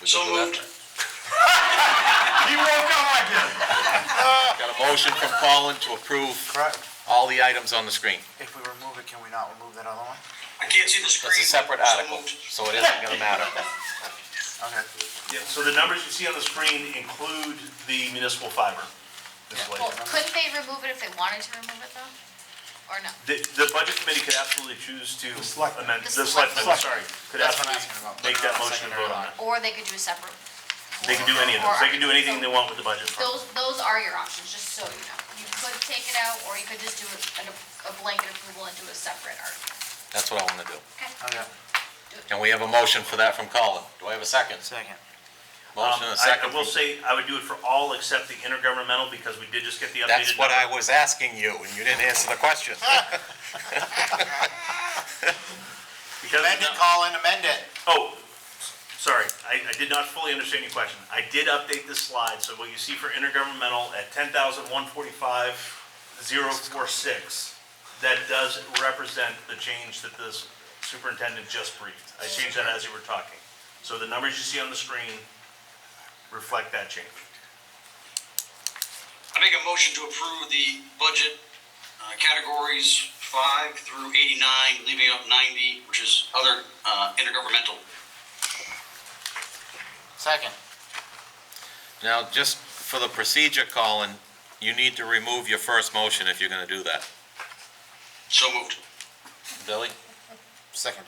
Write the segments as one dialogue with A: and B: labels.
A: We can
B: So
A: go after-
B: You woke up again.
C: Got a motion from Colin to approve
D: Correct.
C: all the items on the screen.
D: If we remove it, can we not remove that other one?
B: I can't see the screen.
C: It's a separate
B: So
C: article,
B: moved.
C: so it isn't gonna matter.
D: Okay.
E: Yeah, so the numbers you see on the screen include the municipal fiber display.
F: Well, couldn't they remove it if they wanted to remove it though? Or no?
E: The, the budget committee could absolutely choose to
D: selectmen.
E: amend,
F: The
E: the selectmen,
F: selectmen.
E: sorry, could
D: That's what I'm
E: absolutely
D: asking about.
E: make that motion and vote on it.
F: Or they could do a separate?
E: They can do any of those, they can do anything they want with the budget.
F: Those, those are your options, just so you know. You could take it out, or you could just do a, a blanket approval and do a separate article.
C: That's what I wanna do.
D: Okay.
C: And we have a motion for that from Colin. Do I have a second?
D: Second.
C: Motion
E: Um,
C: and a
E: I-
C: second.
E: I will
C: from-
E: say, I would do it for all except the intergovernmental, because we did just get the updated.
C: That's what
E: number.
C: I was asking you, and you didn't answer the question.
E: Because
D: Amend it, Colin, amend it.
E: Oh, sorry, I, I did not fully understand your question. I did update this slide, so what you see for intergovernmental at ten thousand one forty-five zero four six, that does represent the change that this superintendent just briefed. I changed that as you were talking. So the numbers you see on the screen reflect that change.
B: I make a motion to approve the budget uh, categories five through eighty-nine, leaving up ninety, which is other uh, intergovernmental.
D: Second.
C: Now, just for the procedure, Colin, you need to remove your first motion if you're gonna do that.
B: So moved.
C: Billy?
D: Second.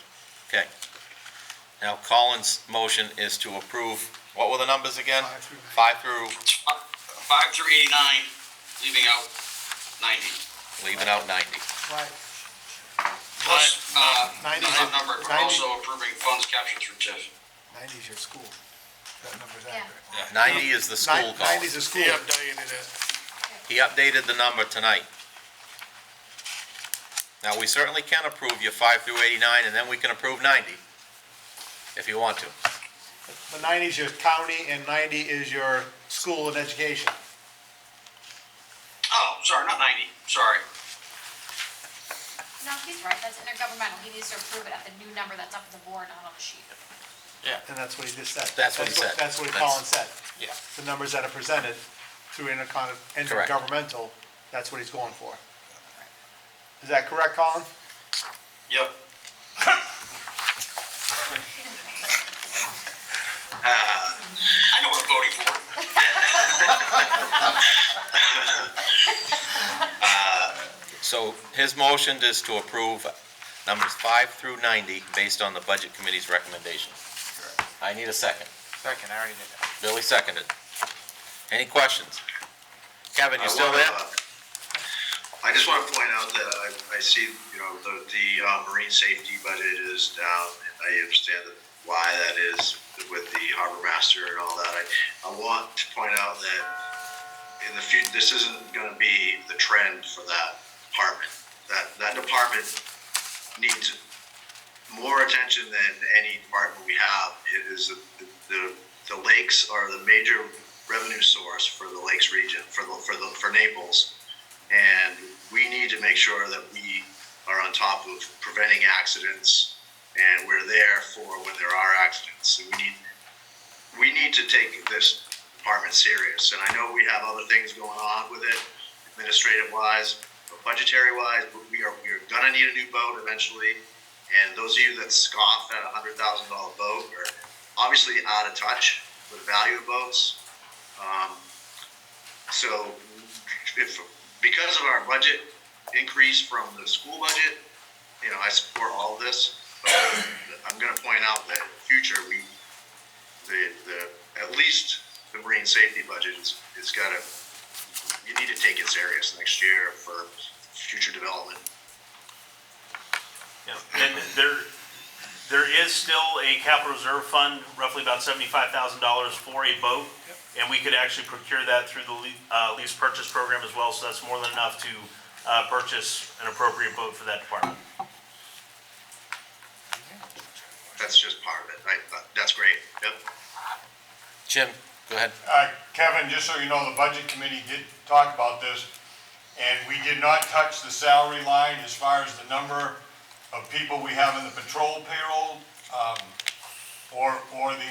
C: Okay. Now Colin's motion is to approve, what were the numbers again? Five through,
B: It's fi- Five through eighty-nine, leaving out ninety.
C: leaving out ninety.
B: Plus, uh, not
G: 90 's
B: that
G: a-
B: number, but
G: 90
B: also approving funds captured through TIF.
G: Ninety's your school. That number's
F: Yeah.
G: accurate.
C: Ninety is the school, Colin.
G: Ninety's a school.
C: He updated the number tonight. Now, we certainly can approve your five through eighty-nine, and then we can approve ninety, if you want to.
G: But ninety's your county and ninety is your school and education.
B: Oh, sorry, not ninety, sorry.
F: No, he's right, that's intergovernmental, he needs to approve it at the new number that's up on the board, not on the sheet.
G: And that's what he just said.
C: That's what he said.
G: That's what
C: That's-
G: Colin said.
C: Yeah.
G: The numbers that are presented through intercon,
C: Correct.
G: intergovernmental, that's what he's going for. Is that correct, Colin?
B: Yep. Uh, I know what I'm voting for.
C: So his motion is to approve numbers five through ninety, based on the budget committee's recommendation. I need a second.
D: Second, I already did that.
C: Billy seconded. Any questions? Kevin, you
H: I
C: still
H: wanna,
C: there?
H: uh, I just want to point out that I, I see, you know, the, the uh, marine safety budget is down. and I understand that- why that is with the harbor master and all that. I, I want to point out that in the future, this isn't going to be the trend for that department. That, that department needs more attention than any department we have. It is the, the, the lakes are the major revenue source for the lakes region, for the, for the, for Naples. And we need to make sure that we are on top of preventing accidents and we're there for when there are accidents. And we need, we need to take this department serious. And I know we have other things going on with it administrative wise, budgetary wise, but we are, we are gonna need a new boat eventually. And those of you that scoff at a hundred thousand dollar boat are obviously out of touch with the value of boats. Um, so if, because of our budget increase from the school budget, you know, I support all of this. But I'm gonna point out that in the future, we, the, the, at least the marine safety budget is, is gotta, you need to take it serious next year for future development.
E: Yeah, and there, there is still a capital reserve fund, roughly about seventy-five thousand dollars for a boat. And we could actually procure that through the le- uh, lease purchase program as well, so that's more than enough to, uh, purchase an appropriate boat for that department.
H: That's just part of it. I, that's great. Yep.
C: Jim, go ahead.
I: Uh, Kevin, just so you know, the budget committee did talk about this, and we did not touch the salary line as far as the number of people we have in the patrol payroll, um, or, or the